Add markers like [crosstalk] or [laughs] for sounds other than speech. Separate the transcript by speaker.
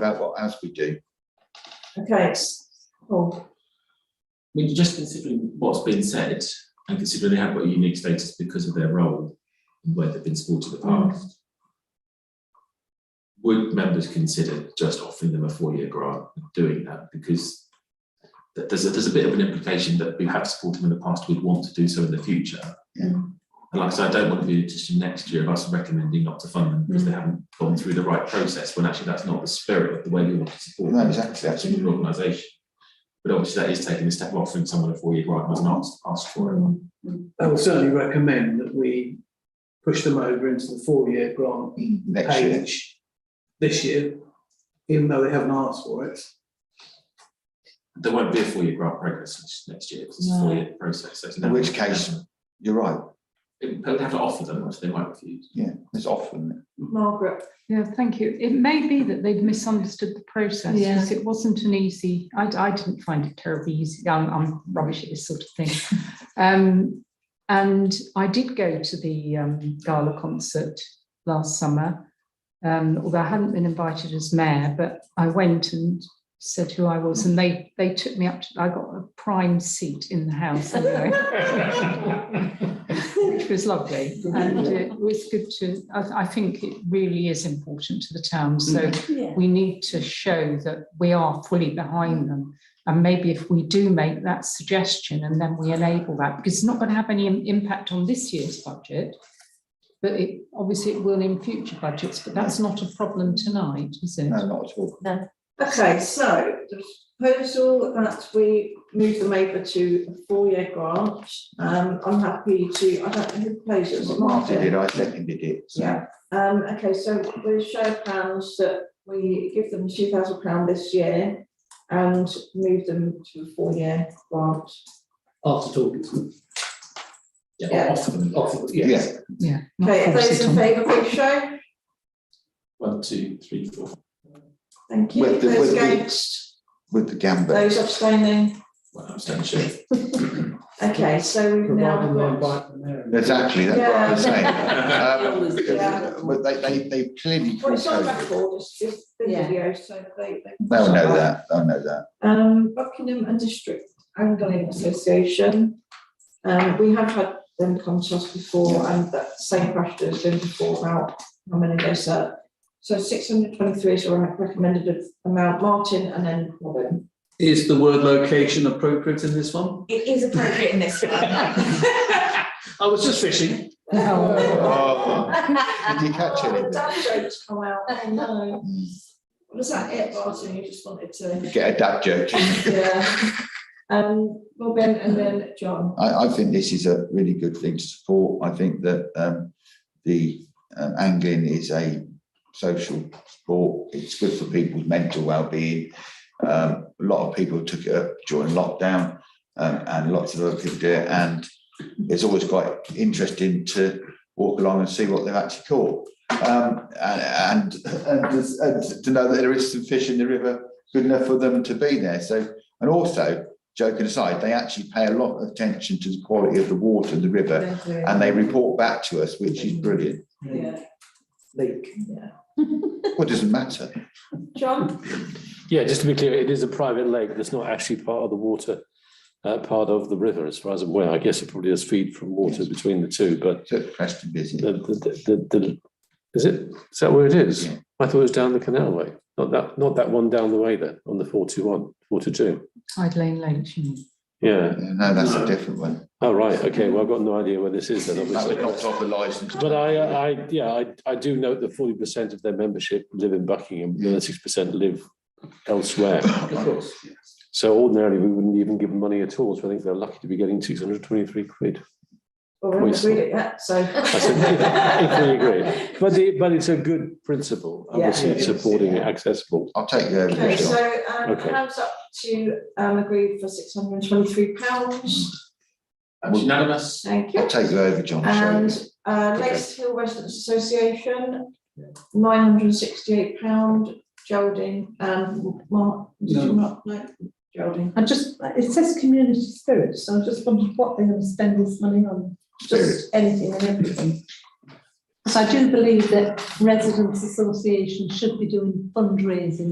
Speaker 1: That's what, as we do.
Speaker 2: Okay, it's, oh,
Speaker 3: I mean, just considering what's been said and considering they have got a unique status because of their role and where they've been supported in the
Speaker 1: Mm.
Speaker 3: past, would members consider just offering them a four-year grant and doing that? Because that there's a, there's a bit of an implication that we have supported them in the past, we'd want to do so in the future.
Speaker 1: Yeah.
Speaker 3: And like I said, I don't want to be in a position next year of us recommending not to fund them because they
Speaker 1: Mm.
Speaker 3: haven't gone through the right process, when actually that's not the spirit of the way we want to support
Speaker 1: No,
Speaker 3: them
Speaker 1: exactly,
Speaker 3: that's an organisation. But obviously that is taking a step off in someone a four-year grant has not asked for it.
Speaker 2: mm,
Speaker 4: I will certainly recommend that we push them over into the four-year grant
Speaker 1: Next year,
Speaker 4: page this year, even though they haven't asked for it.
Speaker 3: There won't be a four-year grant process next- next year, 'cause it's a
Speaker 2: No.
Speaker 3: four-year process, so it's.
Speaker 1: In
Speaker 3: never-
Speaker 1: which case- you're right,
Speaker 3: It- They'll have to offer them, which they might refuse.
Speaker 1: yeah, it's often,
Speaker 2: Margaret,
Speaker 5: Yeah, thank you. It may be that they'd misunderstood the process
Speaker 2: Yeah.
Speaker 5: because it wasn't an easy, I, I didn't find it terribly easy. I'm, I'm rubbish at this sort of thing. Um, and I did go to the um, gala concert last summer, um, although I hadn't been invited as mayor, but I went and said who I was and they, they took me up, to, I got a prime seat in the house anyway which was lovely. And it was good to, I, I think it really is important to the town. So
Speaker 2: yeah,
Speaker 5: we need to show that we are fully
Speaker 6: Mm.
Speaker 5: behind them. And maybe if we do make that suggestion and then we enable that, because it's not going to have any im- impact on this year's budget. But it, obviously it will in future budgets, but that's not a problem tonight, is it?
Speaker 1: no, not at all.
Speaker 2: okay, so the proposal that we move them over to a four-year grant. Um, I'm happy to, I don't know who proposed it, was it
Speaker 1: Martin did,
Speaker 2: Martin?
Speaker 1: I seconded it, so,
Speaker 2: Yeah, um, okay, so we show of hands that we give them two thousand pound this year and move them to a four-year grant.
Speaker 4: After talking to them.
Speaker 3: Yeah,
Speaker 2: Yeah.
Speaker 3: offer them.
Speaker 4: Offer,
Speaker 1: yeah.
Speaker 4: yes.
Speaker 5: Yeah. not
Speaker 2: Okay,
Speaker 5: force
Speaker 2: those
Speaker 5: it
Speaker 2: in
Speaker 5: on.
Speaker 2: favour, please show.
Speaker 3: One, two, three, four.
Speaker 2: Thank you.
Speaker 1: With the- with
Speaker 2: Those
Speaker 1: the-
Speaker 2: against,
Speaker 1: with the gambit.
Speaker 2: those abstaining.
Speaker 3: Well, I'm standing sure.
Speaker 2: Okay, so we've now
Speaker 4: Providing they
Speaker 2: got.
Speaker 4: invite them there.
Speaker 1: Exactly, that's what I was saying.
Speaker 2: [laughs]
Speaker 1: Um,
Speaker 2: Yeah.
Speaker 1: because, well, they, they, they clearly
Speaker 2: Well, it's on
Speaker 1: pre-COVID,
Speaker 2: record, it's just been
Speaker 7: Yeah.
Speaker 2: video, so they. they-
Speaker 1: they'll know that, they'll know that.
Speaker 2: Um, Buckingham and District Angling Association. Um, we have had them come to us before and that same question has been before about how many they serve. So six hundred twenty-three is our recommended amount, Martin and then Robin.
Speaker 4: Is the word location appropriate in this one?
Speaker 7: It is appropriate in this [laughs] one.
Speaker 4: I was just fishing.
Speaker 1: Oh, Did you catch
Speaker 2: Oh,
Speaker 1: it?
Speaker 2: Dad jokes come out, oh no. Was that it, Martin? You just wanted to?
Speaker 1: Get a dad joke.
Speaker 2: Yeah. [laughs] Um, Robin and then John.
Speaker 1: I, I think this is a really good thing to support. I think that um, the um, angling is a social sport. It's good for people's mental well-being. Um, a lot of people took it up during lockdown, um, and lots of other people do it. And it's always quite interesting to walk along and see what they've actually caught, um, and, and, and, and to know that there is some fish in the river good enough for them to be there. So, and also joking aside, they actually pay a lot of attention to the quality of the water in the river and they report back to us, which is brilliant.
Speaker 2: Yeah,
Speaker 4: Lake.
Speaker 2: yeah.
Speaker 1: What doesn't matter?
Speaker 2: John?
Speaker 8: Yeah, just to be clear, it is a private lake that's not actually part of the water, uh, part of the river, as far as I'm aware. I guess it probably does feed from water between the two, but
Speaker 1: So it's Preston busy.
Speaker 8: the, the, the, the, is it, is that where it is?
Speaker 1: Yeah.
Speaker 8: I thought it was down the canal way, not that, not that one down the way then, on the four two one, four two two.
Speaker 5: Hyde Lane Lake, you mean?
Speaker 8: Yeah,
Speaker 1: No, that's a different one.
Speaker 8: oh, right, okay, well, I've got no idea where this is then,
Speaker 1: That was
Speaker 8: obviously.
Speaker 1: knocked off the licence.
Speaker 8: But I, uh, I, yeah, I, I do note that forty percent of their membership live in Buckingham, the other six percent live elsewhere.
Speaker 4: Of course, yeah.
Speaker 8: So ordinarily, we wouldn't even give them money at all, so I think they're lucky to be getting six hundred twenty-three quid.
Speaker 2: Well, we haven't
Speaker 8: Poison.
Speaker 2: agreed it yet, so.
Speaker 8: said,
Speaker 2: [laughs]
Speaker 8: if we agree. But it, but it's a good principle,
Speaker 2: Yeah.
Speaker 8: obviously supporting it accessible.
Speaker 1: I'll take you over
Speaker 2: Okay,
Speaker 1: this one.
Speaker 2: so, um,
Speaker 8: Okay.
Speaker 2: hands up to, um, agreed for six hundred and twenty-three pounds,
Speaker 3: That's unanimous.
Speaker 2: thank you.
Speaker 1: I'll take you over, John. sorry.
Speaker 2: And, uh, Lakes Hill Residents Association, nine hundred and sixty-eight pound, Geraldine and Mark, did you
Speaker 4: No.
Speaker 2: not, no, Geraldine.
Speaker 6: I just, it says community spirit, so I just wondered what they're gonna spend this money on,
Speaker 1: Spirit.
Speaker 6: just anything and everything. Because I do believe that residents associations should be doing fundraising